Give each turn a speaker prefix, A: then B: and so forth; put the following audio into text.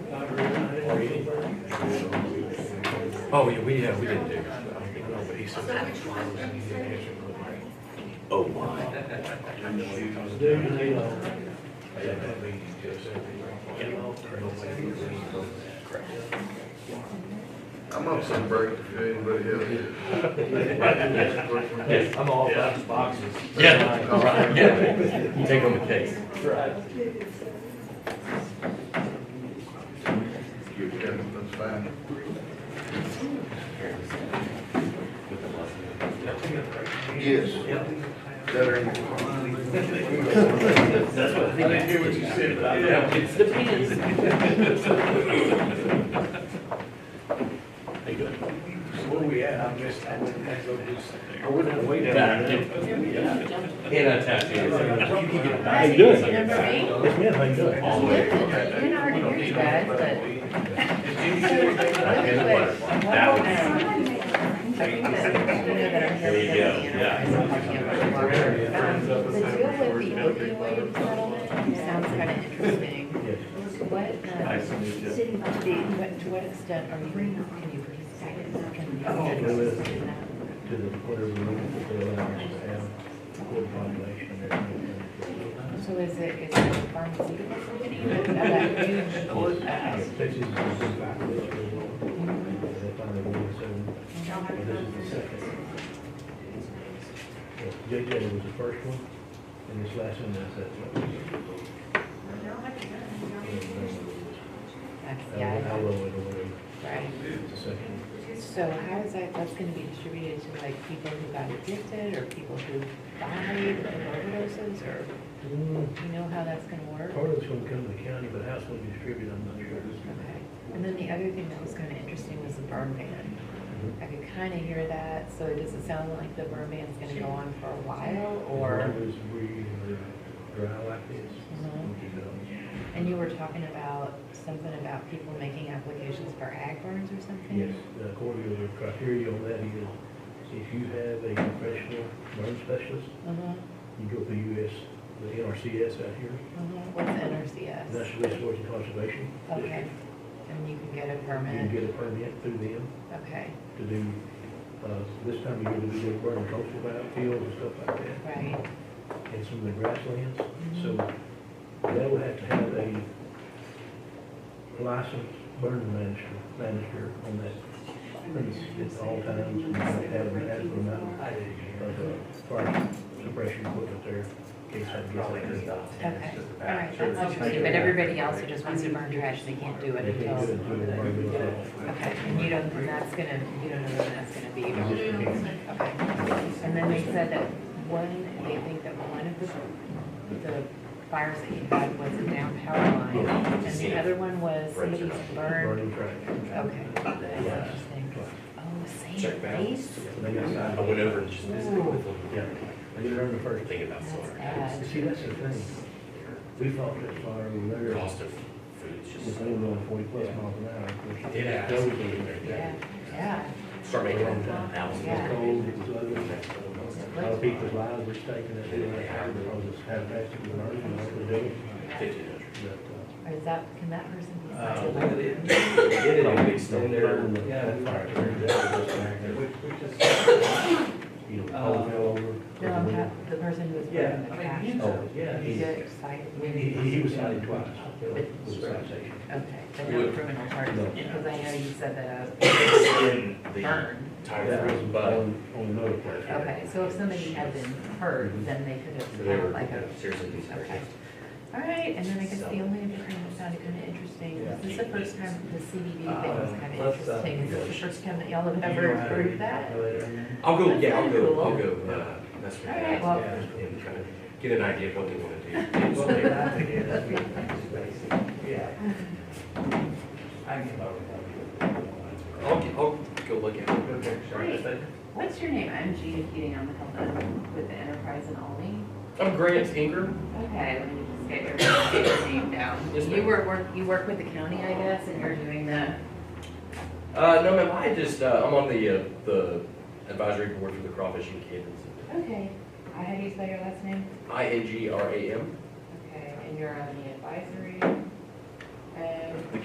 A: Oh, yeah, we, yeah, we didn't do, it. I don't know, but he said. that was one of those things that he answered really well.
B: Oh, my.
A: I know he was-
C: Do you need a-
A: Yeah, that meeting just everything. Nobody was really-
D: I'm on some break if anybody else.
C: Yes, I'm all about the boxes.
B: Yeah, right, yeah. You Take on the case.
C: Right.
D: Yeah, That's fine. Yes.
C: Yep.
B: That's what I
D: I didn't hear what you said, but I-
B: It depends. How you doing?
A: Where we at? I missed, I went, I go do something.
C: I wouldn't have waited.
B: Back. And I tapped in. How you doing?
E: Number eight,
C: Yes, ma'am, how you doing?
B: All the way.
E: you know, I hear you guys, but.
B: There you go,
E: Um, The deal with the opioid settlement sounds kind of interesting. To what, uh, the, what- to what extent are you, can you participate in that? Can you participate in that?
C: To the, whatever you want to fill out, just have full population and everything.
E: So is it, is it a pharmaceutical company? Is that a huge, uh,
C: Yeah, Texas is the population of the world. They find the world, so, and this is the second. Yeah, JJ was the first one, and this last one, that's that one.
E: that's-
C: And, uh, I
E: yeah,
C: will, I will,
E: right?
C: it's the second.
E: So how is that, that's gonna be distributed to like people who got addicted or people who died of overdoses or,
C: Mm,
E: you know how that's gonna work?
C: Part of it's gonna come to the county, but how it's gonna be distributed, I'm not sure.
E: Okay. And then the other thing that was kind of interesting was the burn ban. I could kind of hear that, so does it sound like the burn ban's going to go on for a while,
C: As
E: or?
C: long as we are dry like this.
E: Mhm.
C: you know.
E: And you were talking about something about people making applications for ag burns or something?
C: Yes, the according to the criteria on that is, if you have a professional burn specialist,
E: Uh-huh,
C: you go through US, the NRCS out here,
E: uh-huh, what's NRCS?
C: National Resource and Conservation District.
E: Okay, and you can get
C: You
E: a
C: can
E: permit,
C: get a permit through them
E: okay,
C: to do, uh, this time of year, to do burn control valve fields and stuff like that.
E: right, Mm-hmm.
C: and some of the grasslands. So they will have to have a licensed burn manager, manager on that premise at all times. And they have an adequate amount of uh, fire suppression equipment there in case something gets out there.
E: okay. All right, that's interesting, but everybody else who just wants to burn trash, they can't do it
C: They can't do
E: until,
C: it until the burn goes off.
E: okay, and you don't, and that's going to, you don't know when that's going to be,
C: You just can't.
E: Okay, and then they said that one, they think that one of the, the fires that you had was a down power
C: Oh,
E: line, and the other one was somebody's burn,
C: Burning trash.
E: okay. That's interesting. Oh, same place?
C: They got
B: I
C: signed.
B: went over and just visited with them.
C: Yeah, they did burn the first.
B: Thinking about
E: That's
B: Florida.
E: bad.
C: And see, that's the thing. We fought that fire, we
B: The
C: were there.
B: Cost of food is
C: If
B: just,
C: they were going forty plus miles an hour, of course.
B: did ask.
C: those are-
E: Yeah, yeah,
B: Start making them now.
C: It's
E: Yeah.
C: cold, it's ugly. A lot of people's lives were taken at the end of the hour because it's how fast it was burning, and what they do.
B: Fifteen hundred.
C: But,
E: or is that, can that person be
C: uh,
E: cited?
C: when it-
B: Get it mixed up
C: when they
B: there.
C: burned the- that fire, it turned out it was back there, You know, all fell over.
E: No, I'm not- the person who was burning the trash.
C: Oh, yeah,
E: He
C: he,
E: got cited.
C: he, he was cited twice. with a citation.
E: Okay, but no criminal charges,
C: No.
E: because I know you said that uh, I was
B: The
E: burned.
B: tire
C: That was
B: froze, but
C: on, on another place.
E: Okay, so if somebody had been hurt, then they could have
B: Mm-hmm. they were
E: had like a,
B: seriously
E: okay.
B: concerned.
E: All right, and then I guess the only other thing that sounded kind of interesting, was this the first time the CBD thing
B: Uh,
E: was kind of interesting? Is this the first time that y'all have ever approved that?
B: I'll go, yeah, I'll go, I'll go, uh, that's what
E: All right, well-
B: And kind of get an idea of what they want to do. I'll, get- I'll go look at it.
E: What's your name? I'm Gina Keating, I'm the health admin with the Enterprise in Olney.
B: I'm Grant Ingram.
E: Okay, let me just get your, get your name down.
B: Yes,
E: You
B: ma'am.
E: were, work- you work with the county, I guess, and you're doing the,
B: Uh, no, ma'am, I just, uh, I'm on the, uh, the advisory board for the Crawfishing Cadence.
E: okay, I had you spell your last name?
B: I N G R A M.
E: Okay, and you're on the advisory?